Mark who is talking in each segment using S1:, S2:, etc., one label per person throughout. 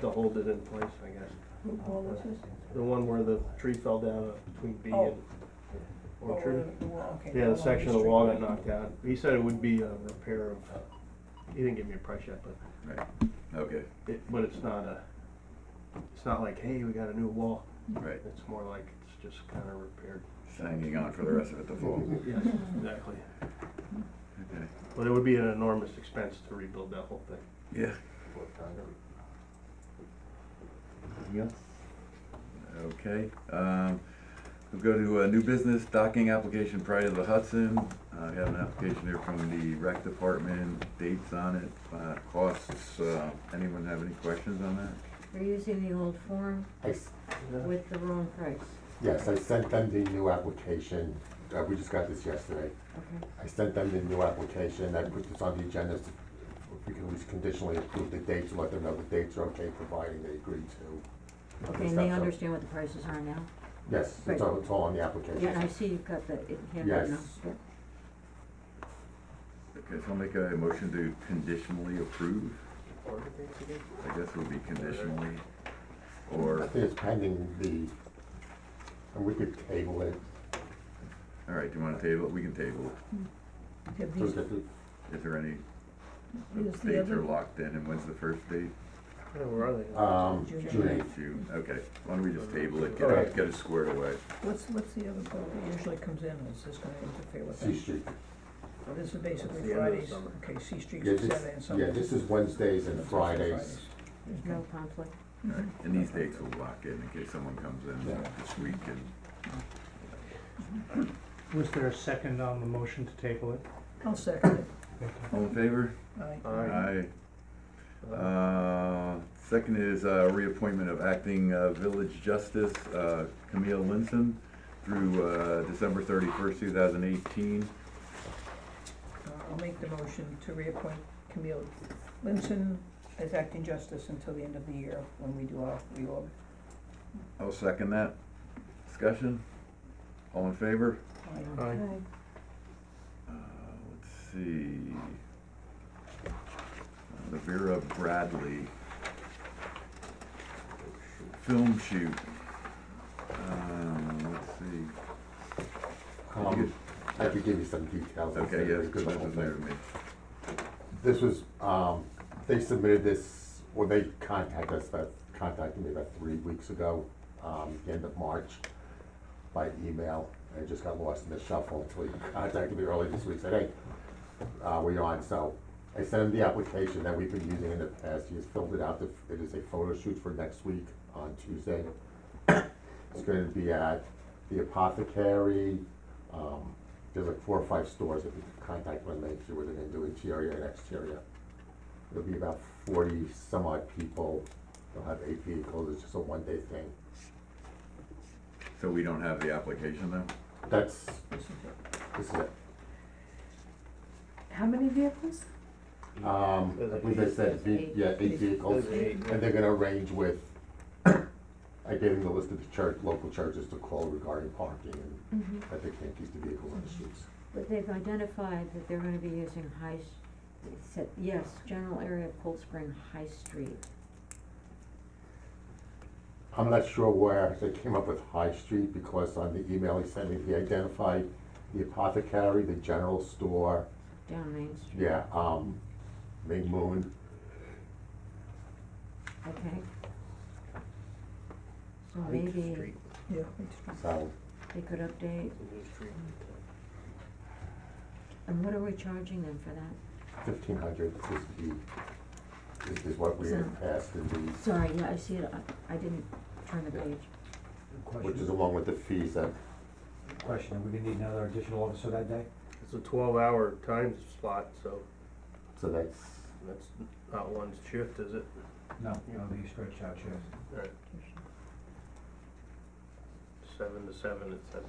S1: to hold it in place, I guess.
S2: What was this?
S1: The one where the tree fell down between B
S2: Oh.
S1: and Orchard.
S2: Oh, the wall, okay,
S1: Yeah, the
S2: along
S1: section of the
S2: street.
S1: wall got knocked out. He said it would be a repair of, he didn't give me a price yet, but
S3: Right, okay,
S1: it, but it's not a, it's not like, hey, we got a new wall.
S3: right,
S1: It's more like it's just kinda repaired.
S3: Just hanging on for the rest of it to fall.
S1: Yes, exactly.
S3: Okay.
S1: But it would be an enormous expense to rebuild that whole thing.
S3: Yeah, okay, um, we'll go to, uh, new business docking application prior to the Hudson. Uh, we have an application here from the rec department, dates on it, uh, costs, uh, anyone have any questions on that?
S4: They're using the old form
S5: I s-
S1: Yeah.
S4: with the wrong price,
S5: Yes, I sent them the new application, uh, we just got this yesterday.
S4: okay?
S5: I sent them the new application, I put this on the agenda, so if we can at least conditionally approve the dates, and let them know the dates are okay, providing they agree to.
S4: Okay,
S5: Is
S4: and
S5: that
S4: they
S5: so?
S4: understand what the prices are now?
S5: Yes, it's all, it's all on the application.
S4: Yeah, and I see you've got the it handwritten
S5: Yes.
S4: out.
S3: Okay, so I'll make a motion to conditionally approve, I guess it would be conditionally,
S5: I
S3: or,
S5: think it's pending the, and we could table it,
S3: all right, do you wanna table it? We can table
S2: Okay,
S5: so
S2: these-
S5: that the,
S3: it. Is there any, the
S2: Here's the
S3: dates are
S2: other-
S3: locked in, and when's the first date?
S1: Yeah, where are they?
S5: um,
S2: June
S5: June
S2: eighth.
S5: eighth.
S3: June, okay, why don't we just table it, get it,
S5: Alright.
S3: get it squared away.
S2: What's, what's the other boat that usually comes in, is this gonna interfere with
S5: C
S2: that?
S5: Street.
S2: Well, This is
S1: That's the
S2: basically
S1: end of the
S2: Fridays,
S1: summer.
S2: okay, C Street's
S5: Yeah, this,
S2: Saturday and Sunday.
S5: yeah, this is Wednesdays and Fridays.
S4: There's no conflict.
S2: Mm-hmm.
S3: Alright, Mm-hmm. and these dates will lock in in case someone comes in
S5: Yeah.
S3: this week and,
S6: Was there a second on the motion to table it?
S2: I'll second
S3: all in favor?
S2: it, aye.
S1: Aye.
S3: Aye. Uh, second is, uh, reappointment of acting, uh, village justice, uh, Camille Linson through, uh, December thirty-first, two thousand eighteen.
S2: Uh, I'll make the motion to reappoint Camille Linson as acting justice until the end of the year when we do our reorg.
S3: I'll second that. Discussion? All in favor?
S2: Aye.
S1: Aye.
S3: Uh, let's see. Uh, The Vera Bradley film shoot. Um, let's see.
S5: Um, I could give you some details.
S3: Okay,
S5: It's a-
S3: yes,
S5: it's a good
S3: that
S5: whole
S3: was
S5: thing.
S3: new to me.
S5: This was, um, they submitted this, or they contacted us about, contacted me about three weeks ago, um, the end of March, by email, and it just got lost in the shuffle until he contacted me early this week, said, hey, uh, we're on, so I sent him the application that we've been using in the past, he has filled it out, The- it is a photo shoot for next week on Tuesday. It's gonna be at the apothecary, um, there's like four or five stores that we can contact when they do what they're gonna do interior and exterior. It'll be about forty some odd people, they'll have eight vehicles, it's just a one day thing.
S3: So we don't have the application though?
S5: That's,
S2: This is it.
S5: this is it.
S4: How many vehicles?
S5: Um, I believe they said, ve- yeah, eight vehicles,
S1: Those are eight.
S5: and they're gonna arrange with, I gave them the list of the church, local churches to call regarding parking and
S4: Mm-hmm.
S5: that they can't keep the vehicles on the streets.
S4: But they've identified that they're gonna be using High, S- it said, yes, general area of Cold Spring High Street.
S5: I'm not sure where they came up with High Street, because on the email he sent me, he identified the apothecary, the general store,
S4: Down Main Street.
S5: yeah, um, Ming Moon,
S4: Okay. So
S1: Haight
S4: maybe
S1: Street.
S2: Yeah, Eighth Street.
S5: so,
S4: they could update,
S1: It's a new street.
S4: and what are we charging them for that?
S5: fifteen hundred is the, is, is what we had passed in the,
S4: Sorry, yeah, I see it, I, I didn't turn the
S5: Yeah.
S4: page.
S5: which is
S7: Question,
S5: along with the fees that,
S7: question, are we gonna need another additional officer that day?
S1: It's a twelve hour time slot, so
S5: so that's,
S1: that's not one shift, is it?
S7: No, it'll be a stretched out shift.
S1: Alright. Seven to seven, it said.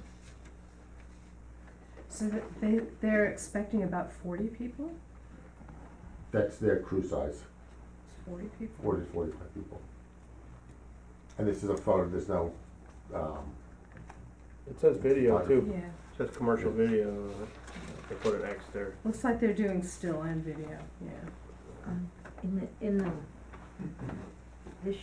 S8: So th- they, they're expecting about forty people?
S5: that's their crew size,
S8: Forty people?
S5: forty, forty-five people. And this is a photo, there's no, um,
S1: It says video too.
S8: Yeah,
S1: It says commercial video. They put an X there.
S8: looks like they're doing still and video, yeah.
S5: Mm-hmm.
S4: Um, In the, in the